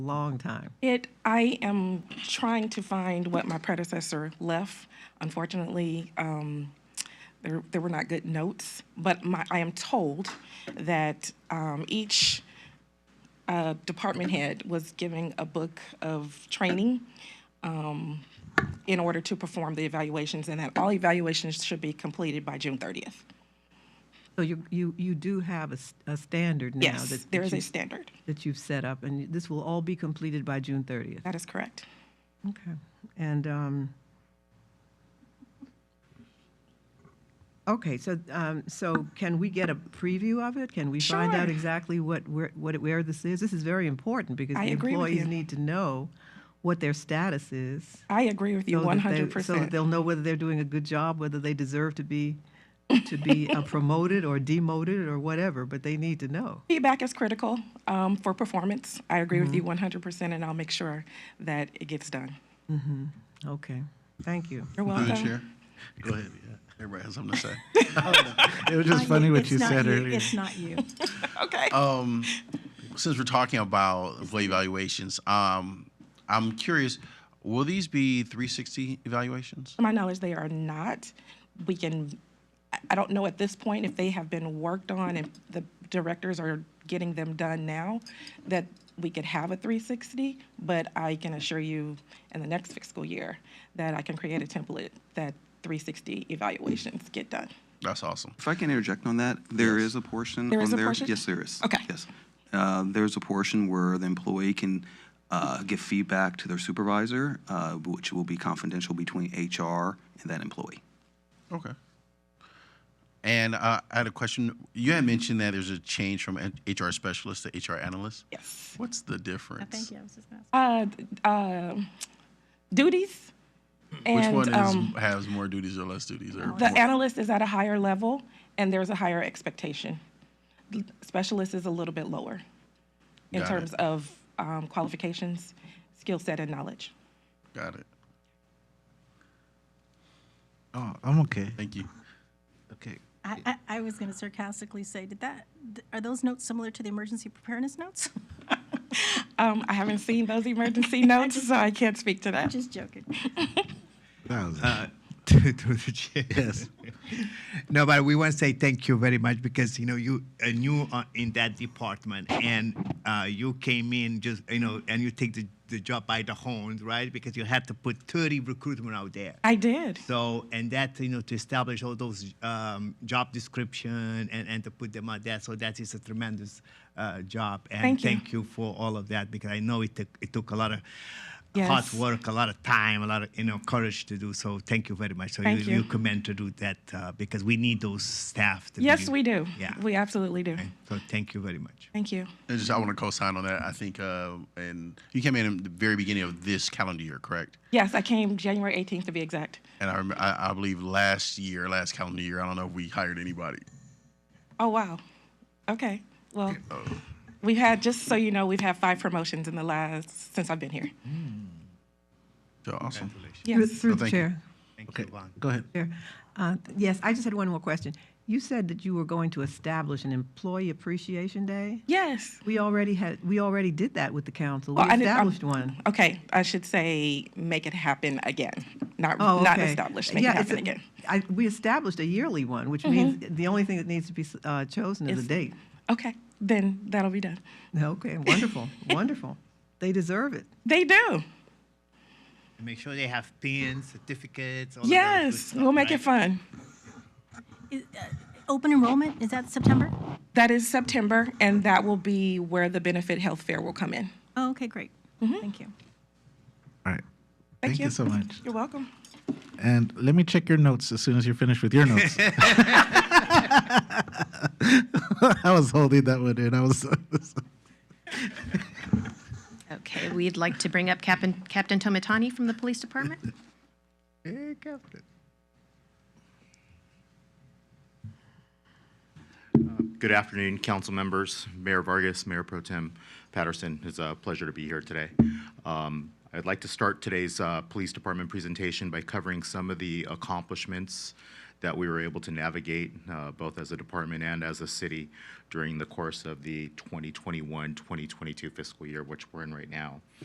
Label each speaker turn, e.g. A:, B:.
A: long time.
B: It, I am trying to find what my predecessor left. Unfortunately, um, there, there were not good notes, but my, I am told that, um, each, uh, department head was giving a book of training, um, in order to perform the evaluations, and that all evaluations should be completed by June thirtieth.
A: So you, you, you do have a, s- a standard now that-
B: Yes,
A: that
B: there is
A: you-
B: a standard.
A: that you've set up, and this will all be completed by June 30th.
B: That is correct.
A: Okay. And, um, okay, so, um, so can we get a preview of it? Can we find out
B: Sure.
A: exactly what, where, what, where this is? This is very important because
B: I
A: the
B: agree with
A: employees
B: you.
A: need to know what their status is.
B: I agree with you
A: so
B: one
A: that they-
B: hundred
A: So that
B: percent.
A: they'll know whether they're doing a good job, whether they deserve to be, to be uh, promoted or demoted or whatever, but they need to know.
B: Feedback is critical um, for performance. I agree with you 100%, and I'll make sure that it gets done.
A: Okay, thank you.
B: You're
C: Through the
B: welcome.
C: chair. Go ahead, yeah. Everybody has something to say.
D: Oh,
E: It was just
D: Not
E: funny what
D: it's
E: you
D: not
E: said earlier.
D: It's not you.
B: Okay.
C: Um, since we're talking about employee evaluations, um, I'm curious, will these be 360 evaluations?
B: to my knowledge, they are not. We can, I- I don't know at this point if they have been worked on and the directors are getting them done now, that we could have a 360, but I can assure you in the next fiscal year that I can create a template that 360 evaluations get done.
C: That's awesome.
F: If I can interject on that, there is a portion
B: There
F: on
B: is a
F: there.
B: portion?
F: Yes, there is.
B: Okay.
F: Yes. Uh, There's a portion where the employee can uh, give feedback to their supervisor, uh, which will be confidential between HR and that employee.
C: Okay. And uh, I had a question. You had mentioned that there's a change from an HR specialist to HR analyst.
B: Yes.
C: What's the difference?
D: Thank you. I was just gonna ask.
B: Uh, d- uh, duties.
C: Which
B: and,
C: one is,
B: um,
C: has more duties or less duties? Or
D: Oh.
B: The analyst is at a higher level, and there's a higher expectation. The Specialist is a little bit lower in
C: Got it.
B: terms of um, qualifications, skill set, and knowledge.
C: Got it.
E: Oh, I'm okay.
C: Thank you.
E: Okay.
D: I, I, I was gonna sarcastically say, did that, th- are those notes similar to the emergency preparedness notes?
B: Um, I haven't seen those emergency notes, so I can't speak to that.
D: Just joking.
E: That was-
G: Uh, to, to the chair.
E: Yes.
G: No, but we want to say thank you very much because you know you are new uh, in that department and uh, you came in just you know and you take the, the job by the horns, right? Because you had to put 30 recruitment out there.
B: I did.
G: So and that you know to establish all those um, job description and, and to put them out there. So that is a tremendous uh, job and
B: Thank you.
G: for all of that because I know it took it took a lot of
B: Yes.
G: hard work, a lot of time, a lot of you know courage to do. So thank you very much. So
B: Thank
G: you
B: you.
G: commend to do that uh, because we need those staff. To
B: Yes,
G: be-
B: we do.
G: Yeah.
B: We absolutely do.
G: so thank you very much.
B: Thank you.
C: And just I want to co-sign on that. I think, uh, and you came in at the very beginning of this calendar year, correct?
B: Yes, I came January 18th to be exact.
C: And I, remember, I, I believe last year, last calendar year, I don't know if we hired anybody.
B: Oh, wow. Okay. Well,
A: oh.
B: we've had, just so you know, we've had five promotions in the last, since I've been here.
A: Mm-hmm.
C: So awesome.
A: Through-
B: Yes.
A: Through the
C: Thank you.
A: chair.
G: Thank
E: Okay.
G: you, Juan.
E: Go ahead.
A: Chair. Uh, Yes, I just had one more question. You said that you were going to establish an Employee Appreciation Day?
B: Yes.
A: We already had, we already did that with the council. We
B: Well, I didn't- I'm-
A: established one.
B: Okay, I should say make it happen again, not
A: Oh, okay.
B: not established. Make it
A: it's
B: happen
A: a-
B: again.
A: I- We established a yearly one, which means the only thing that needs to be uh, chosen is a
B: Is-
A: date.
B: Okay, then that'll be done.
A: Okay, wonderful, wonderful. They deserve it.
B: They do.
G: And Make sure they have pins, certificates. All of those good
B: Yes,
G: stuff,
B: we'll make
G: right?
B: it fun.
D: Is, uh, Open enrollment, is that September?
B: That is September, and that will be where the benefit health fair will come in.
D: Oh, okay, great. Thank you.
E: All right.
B: Thank
E: Thank
B: you.
E: you so much.
B: You're welcome.
E: And let me check your notes as soon as you're finished with your notes. I was holding that one in. I was.
H: Okay, we'd like to bring up Captain, Captain Tomatani from the Police Department.
E: Hey, Captain.
I: Good afternoon, council members, Mayor Vargas, Mayor Pro Tem Patterson. It's a pleasure to be here today. Um, I'd like to start today's uh, Police Department presentation by covering some of the accomplishments that we were able to navigate, uh, both as a department and as a city, during the course of the 2021-2022 fiscal year, which we're in right now.